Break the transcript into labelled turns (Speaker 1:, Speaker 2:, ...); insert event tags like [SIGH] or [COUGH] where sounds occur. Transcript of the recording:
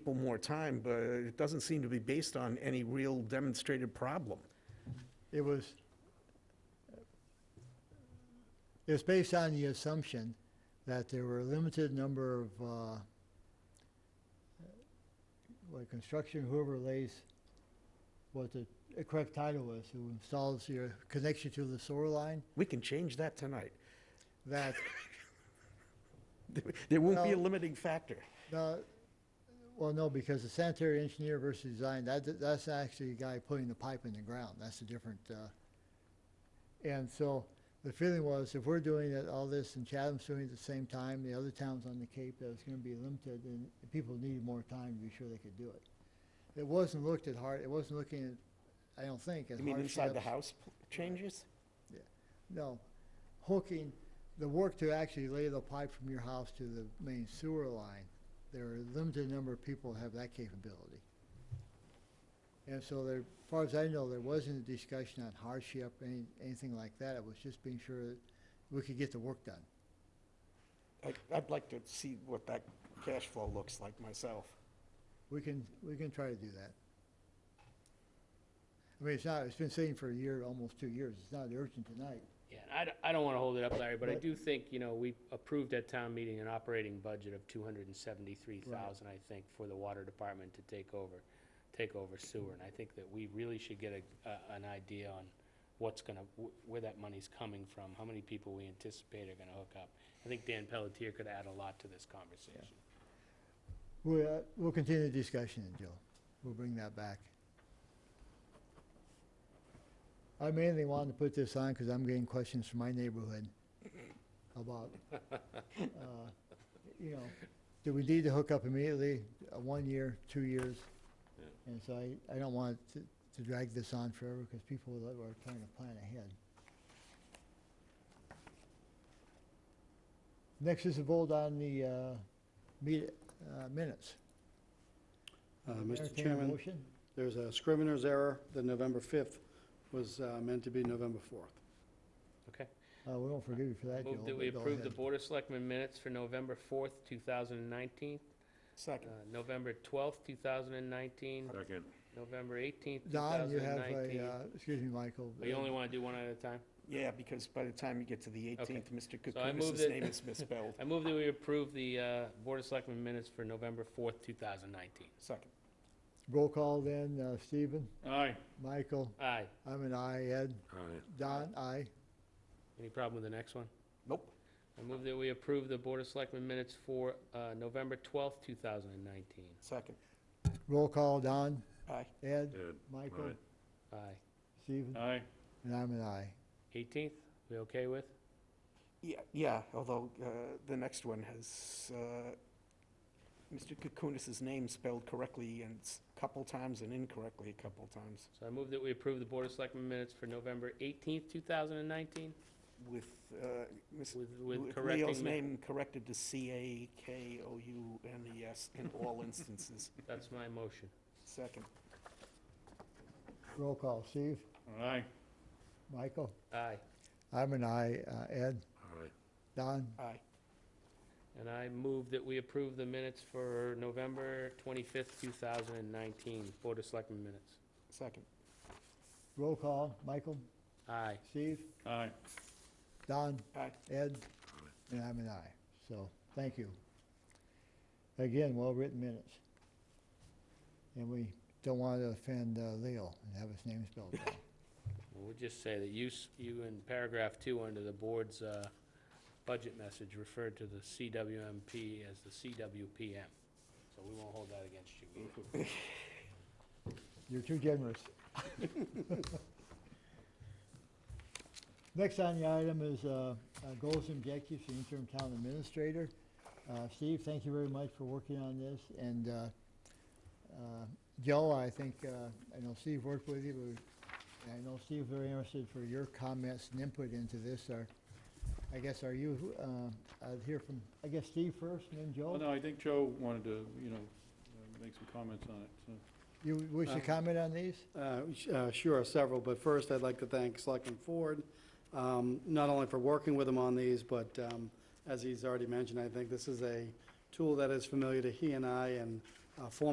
Speaker 1: people more time, but it doesn't seem to be based on any real demonstrated problem.
Speaker 2: It was, it was based on the assumption that there were a limited number of, uh, like construction, whoever lays what the correct title is, who installs your connection to the sewer line,
Speaker 1: We can change that tonight. [LAUGHS]
Speaker 2: that
Speaker 1: There- There won't be a
Speaker 2: Well-
Speaker 1: limiting factor.
Speaker 2: No, well, no, because the sanitary engineer versus design, that, that's actually a guy putting the pipe in the ground, that's a different, uh, and so the feeling was, if we're doing it, all this, and Chatham's doing it at the same time, the other towns on the Cape, that was gonna be limited, and the people needed more time to be sure they could do it. It wasn't looked at hard, it wasn't looking at, I don't think, at
Speaker 1: You
Speaker 2: hardships.
Speaker 1: mean inside the house p- changes?
Speaker 2: No, hooking, the work to actually lay the pipe from your house to the main sewer line, there are a limited number of people who have that capability. And so there, as far as I know, there wasn't a discussion on hardship, any, anything like that. It was just being sure that we could get the work done.
Speaker 1: I- I'd like to see what that cash flow looks like myself.
Speaker 2: We can, we can try to do that. I mean, it's not, it's been sitting for a year, almost two years. It's not urgent tonight.
Speaker 3: Yeah, and I, d- I don't want to hold it up, Larry, but I
Speaker 2: But-
Speaker 3: do think, you know, we approved at town meeting an operating budget of two hundred and seventy-three thousand, I think, for the water department to take over, take over sewer, and I think that we really should get a, a- an idea on what's gonna, wh- where that money's coming from, how many people we anticipate are gonna hook up. I think Dan Pelletier could add a lot to this conversation.
Speaker 2: We'll, uh, we'll continue the discussion, Joe. We'll bring that back. I mainly wanted to put this on because I'm getting questions from my neighborhood about, uh, you know, do we need to hook up immediately, uh, one year, two years? And so I, I don't want to to drag this on forever because people that are trying to plan ahead. Next is a vote on the uh, meet- uh, minutes.
Speaker 4: Uh, Mr.
Speaker 2: Entertain a
Speaker 4: Chairman,
Speaker 2: motion?
Speaker 4: there's a scrivener's error. The November 5th was uh, meant to be November 4th.
Speaker 3: Okay?
Speaker 2: Uh, we won't forgive you for that, Joel.
Speaker 3: Move that we
Speaker 2: but go
Speaker 3: approve the
Speaker 2: ahead.
Speaker 3: Board of Selectmen minutes for November fourth, two thousand and nineteen, uh,
Speaker 1: Second.
Speaker 3: November twelfth, two thousand and nineteen,
Speaker 5: Second.
Speaker 3: November eighteenth, two
Speaker 2: Don,
Speaker 3: thousand
Speaker 2: you
Speaker 3: and
Speaker 2: have
Speaker 3: nineteen.
Speaker 2: a, uh, excuse me, Michael.
Speaker 3: Oh, You
Speaker 2: uh,
Speaker 3: only want to do one at a time?
Speaker 1: Yeah, because by the time you get to the 18th, Mr.
Speaker 3: So I moved
Speaker 1: Kukumis's
Speaker 3: it-
Speaker 1: name
Speaker 3: [LAUGHS]
Speaker 1: is misspelled.
Speaker 3: I move that we approve the uh, Board of Selectmen minutes for November 4th, 2019.
Speaker 1: Second.
Speaker 2: Roll call then, uh, Stephen,
Speaker 5: Aye.
Speaker 2: Michael,
Speaker 3: Aye.
Speaker 2: I'm an aye, Ed,
Speaker 5: Aye.
Speaker 2: Don, aye.
Speaker 3: Any problem with the next one?
Speaker 1: Nope.
Speaker 3: I move that we approve the Board of Selectmen minutes for uh, November 12th, 2019.
Speaker 1: Second.
Speaker 2: Roll call, Don,
Speaker 1: Aye.
Speaker 2: Ed,
Speaker 5: Ed,
Speaker 2: Michael,
Speaker 5: aye.
Speaker 3: Aye.
Speaker 2: Stephen,
Speaker 5: Aye.
Speaker 2: and I'm an aye.
Speaker 3: 18th, we okay with?
Speaker 1: Yeah, yeah, although uh, the next one has uh, Mr. Kukunis's name spelled correctly and s- couple times and incorrectly a couple times
Speaker 3: So I move that we approve the Board of Selectmen minutes for November 18th, 2019,
Speaker 1: with uh, Ms.
Speaker 3: with
Speaker 1: with Leo's
Speaker 3: with correcting... ma-
Speaker 1: name corrected to C-A-K-O-U-N-E-S E in all
Speaker 3: [LAUGHS]
Speaker 1: instances.
Speaker 3: That's my motion.
Speaker 1: Second.
Speaker 2: Roll call, Steve,
Speaker 5: Aye.
Speaker 2: Michael,
Speaker 3: Aye.
Speaker 2: I'm an aye, uh, Ed,
Speaker 5: Aye.
Speaker 2: Don,
Speaker 1: Aye.
Speaker 3: And I move that we approve the minutes for November 25th, 2019, Board of Selectmen minutes.
Speaker 1: Second.
Speaker 2: roll call, Michael,
Speaker 3: Aye.
Speaker 2: Steve,
Speaker 5: Aye.
Speaker 2: Don,
Speaker 1: Aye.
Speaker 2: Ed, and I'm an aye. So, thank you. Again, well-written minutes. And we don't want to offend uh, Leo and have his name spelled wrong.
Speaker 3: Well, We'll just say that you, s- you in paragraph two under the board's uh, budget message referred to the CWMP as the CWPM. So we won't hold that against you either.
Speaker 2: You're too generous. Next on the item is uh, uh, goals and objectives, for interim town administrator. Uh, Steve, thank you very much for working on this, and uh, uh, Joe, I think, uh, I know Steve worked with you, but I know Steve very interested for your comments and input into this. Are- I guess, are you, uh, I'd hear from, I guess Steve first, and then
Speaker 5: Well,
Speaker 2: Joe?
Speaker 5: no, I think Joe wanted to, you know, uh, make some comments on it, so.
Speaker 2: You wish to
Speaker 4: Uh,
Speaker 2: comment on these?
Speaker 4: Uh, sh- uh, Sure, several, but first, I'd like to thank Selectman Ford, um, not only for working with him on these, but um, as he's already mentioned, I think this is a tool that is familiar to he and I, and uh, former